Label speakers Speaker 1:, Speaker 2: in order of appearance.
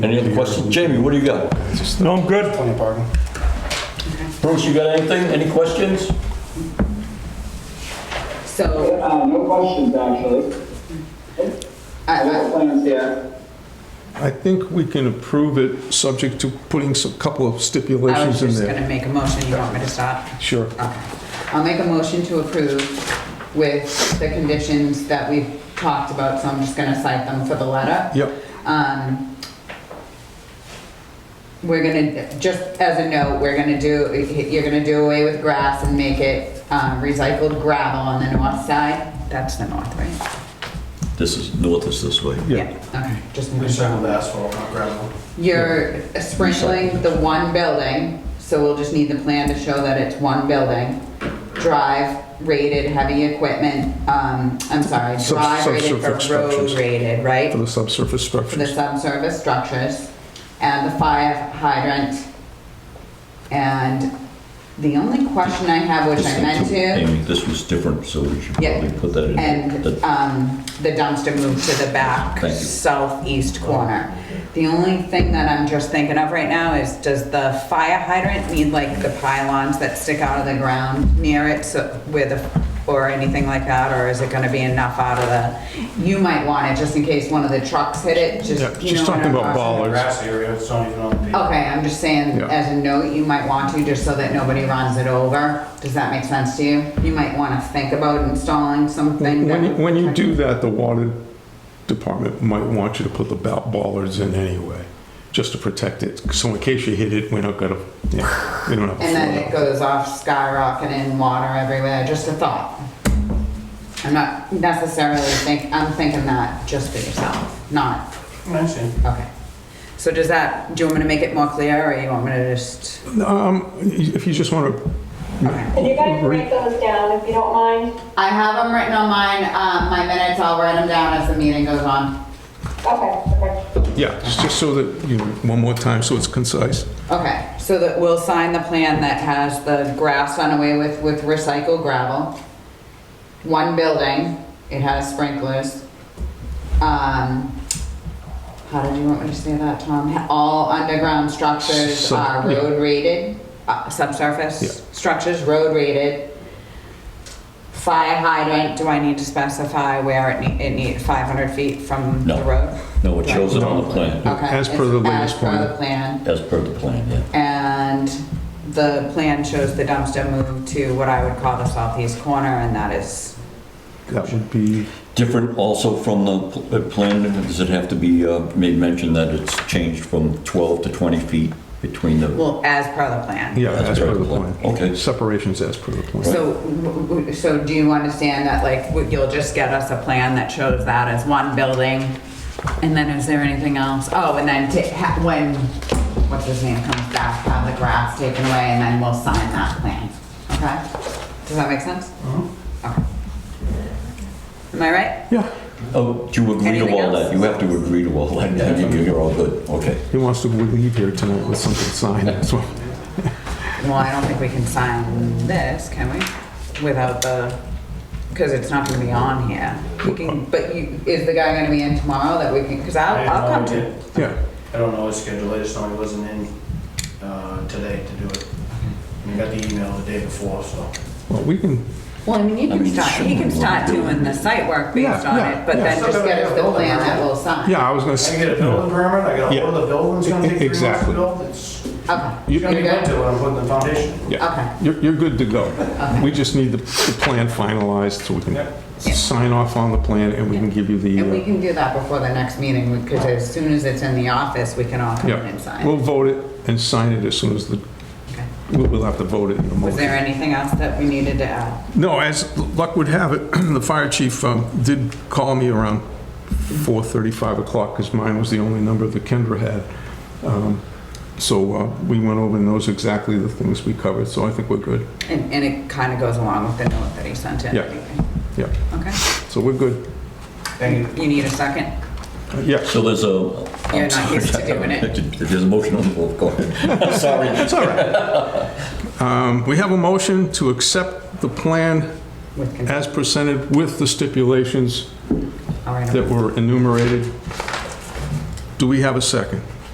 Speaker 1: Any other questions? Jamie, what do you got?
Speaker 2: No, I'm good.
Speaker 3: Plenty of parking.
Speaker 1: Bruce, you got anything? Any questions?
Speaker 4: So,
Speaker 5: Uh, no questions, actually.
Speaker 4: I,
Speaker 5: No
Speaker 4: I,
Speaker 5: plans here.
Speaker 2: I think we can approve it, subject to putting some, couple of
Speaker 4: I was
Speaker 2: stipulations in
Speaker 4: just
Speaker 2: there.
Speaker 4: gonna make a motion, you want me to stop?
Speaker 2: Sure.
Speaker 4: Okay. I'll make a motion to approve with the conditions that we've talked about, so I'm just gonna cite them for the letter.
Speaker 2: Yep.
Speaker 4: Um, we're gonna, just as a note, we're gonna do, you're gonna do away with grass and make it, um, recycled gravel on the north side. That's the north, right?
Speaker 1: This is, north is this way.
Speaker 2: Yeah.
Speaker 4: Okay, just making sure.
Speaker 3: Recycled asphalt, not gravel.
Speaker 4: You're sprinkling the one building, so we'll just need the plan to show that it's one building. Drive rated heavy equipment, um, I'm sorry,
Speaker 2: Sub-
Speaker 4: drive rated
Speaker 2: subsurface
Speaker 4: for road
Speaker 2: structures.
Speaker 4: rated, right?
Speaker 2: For the subsurface
Speaker 4: For the
Speaker 2: structures.
Speaker 4: subsurface structures and the fire hydrant. And the only question I have, which I meant to,
Speaker 1: Amy, this was different, so we should
Speaker 4: Yeah.
Speaker 1: probably put that in.
Speaker 4: and,
Speaker 1: That-
Speaker 4: um, the dumpster moved to the back
Speaker 1: Thank you.
Speaker 4: southeast corner. The only thing that I'm just thinking of right now is, does the fire hydrant need like the pylons that stick out of the ground near it, so, where the, or anything like that, or is it gonna be enough out of the, you might want it just in case one of the trucks hit it, just, you know.
Speaker 2: Yeah, she's
Speaker 4: what
Speaker 2: talking
Speaker 4: I'm
Speaker 2: about
Speaker 4: talking
Speaker 2: bollards.
Speaker 3: Grass area, it's not even on the pavement.
Speaker 4: Okay, I'm just saying,
Speaker 2: Yeah.
Speaker 4: as a note, you might want to, just so that nobody runs it over. Does that make sense to you? You might want to think about installing something.
Speaker 2: When, you-
Speaker 4: that-
Speaker 2: when you do that, the water department might want you to put the ba- bollards in anyway, just to protect it. So in case you hit it, we're not gonna, yeah, we don't have. a
Speaker 4: And then it
Speaker 2: flood.
Speaker 4: goes off skyrocketing, water everywhere, just a thought. I'm not necessarily think, I'm thinking that just for yourself, not,
Speaker 3: I see.
Speaker 4: okay. So does that, do you want me to make it more clear, or you want me to just,
Speaker 2: Um, if you just wanna,
Speaker 4: okay.
Speaker 6: Could you guys write those down if you don't mind?
Speaker 4: I have them written on mine, um, my minutes, I'll write them down as the meeting goes on.
Speaker 6: Okay, okay.
Speaker 2: yeah, just just so that, you know, one more time, so it's concise.
Speaker 4: Okay, so that we'll sign the plan that has the grass done away with, with recycled gravel. One building, it has sprinklers. Um, how did you want me to say that, Tom? All underground structures
Speaker 2: Sub-
Speaker 4: are
Speaker 2: yeah.
Speaker 4: road rated, uh,
Speaker 2: Yeah.
Speaker 4: subsurface structures, road rated. Fire hydrant, do I need to specify where it need, it need five hundred feet from
Speaker 1: No.
Speaker 4: the road?
Speaker 1: No, it shows it on the plan,
Speaker 4: Okay.
Speaker 2: As per the
Speaker 4: it's
Speaker 2: latest
Speaker 4: As per
Speaker 2: plan.
Speaker 4: the plan.
Speaker 1: as per the plan, yeah.
Speaker 4: And the plan shows the dumpster moved to what I would call the southeast corner, and that is,
Speaker 2: That would be,
Speaker 1: Different also from the pl- uh, plan, does it have to be uh, made mention that it's changed from 12 to 20 feet between the,
Speaker 4: well, as per the plan.
Speaker 2: yeah, as per the plan.
Speaker 1: Okay.
Speaker 2: Separations as per the plan.
Speaker 4: So, w- w- so do you understand that, like, w- you'll just get us a plan that shows that as one building? And then is there anything else? Oh, and then ta- ha- when, what's his name comes back, have the grass taken away, and then we'll sign that plan, okay? Does that make sense? Okay. Am I right?
Speaker 2: Yeah,
Speaker 1: oh, do you agree to
Speaker 4: Anything
Speaker 1: all
Speaker 4: else?
Speaker 1: that? You have to agree to all that, Yeah, you- you're all good, okay.
Speaker 2: he wants to leave here tonight with something signed, that's why.
Speaker 4: Well, I don't think we can sign this, can we? Without the, because it's not gonna be on here. We can, but you, is the guy gonna be in tomorrow that we can, because
Speaker 3: I
Speaker 4: I'll,
Speaker 3: have no
Speaker 4: I'll come
Speaker 3: idea.
Speaker 4: to.
Speaker 2: Yeah,
Speaker 3: I don't know his schedule, I just know he wasn't in uh, today to do it. And I got the email the day before, so.
Speaker 2: well, we can,
Speaker 4: Well, I mean, you
Speaker 1: I
Speaker 4: can
Speaker 1: mean,
Speaker 4: start, he
Speaker 1: sure,
Speaker 4: can start
Speaker 1: we'll do it.
Speaker 4: doing the site work based
Speaker 2: Yeah,
Speaker 4: on
Speaker 2: yeah,
Speaker 4: it, but
Speaker 2: yeah.
Speaker 4: then just get us the plan that we'll sign.
Speaker 2: yeah, I was gonna
Speaker 3: I
Speaker 2: say.
Speaker 3: gotta get a building permit, I gotta
Speaker 2: Yeah.
Speaker 3: order the building's gonna take three months to
Speaker 2: Exactly.
Speaker 3: build. It's
Speaker 4: Okay,
Speaker 2: You-
Speaker 3: it's
Speaker 4: you're
Speaker 3: gonna be
Speaker 4: good?
Speaker 3: built to when I'm putting the foundation.
Speaker 2: Yeah,
Speaker 4: Okay.
Speaker 2: you're, you're good to go. We just need the, the plan finalized so we can
Speaker 3: Yeah.
Speaker 2: sign off on the plan and we can give you
Speaker 4: And we
Speaker 2: the, uh,
Speaker 4: can do that before the next meeting, because as soon as it's in the office, we can all come in and
Speaker 2: yeah,
Speaker 4: sign.
Speaker 2: we'll vote it and sign it as soon as the,
Speaker 4: Okay.
Speaker 2: we'll, we'll have to vote it in a
Speaker 4: Was there
Speaker 2: moment.
Speaker 4: anything else that we needed to add?
Speaker 2: No, as luck would have it, the fire chief um, did call me around 4:30, 5 o'clock, because mine was the only number that Kendra had. Um, So uh, we went over and those exactly the things we covered, so I think we're good.
Speaker 4: And, and it kind of goes along with the note that he sent in.
Speaker 2: Yeah. Yeah,
Speaker 4: Okay.
Speaker 2: so we're good.
Speaker 3: Thank you.
Speaker 4: You need a second?
Speaker 2: Yeah,
Speaker 1: So there's a.
Speaker 4: You're not used to doing it.
Speaker 1: There's a motion on the floor, go ahead. Sorry.
Speaker 2: It's all right. Um, We have a motion to accept the plan
Speaker 4: With consent.
Speaker 2: as presented with the stipulations
Speaker 4: All right.
Speaker 2: that were enumerated. Do we have a second?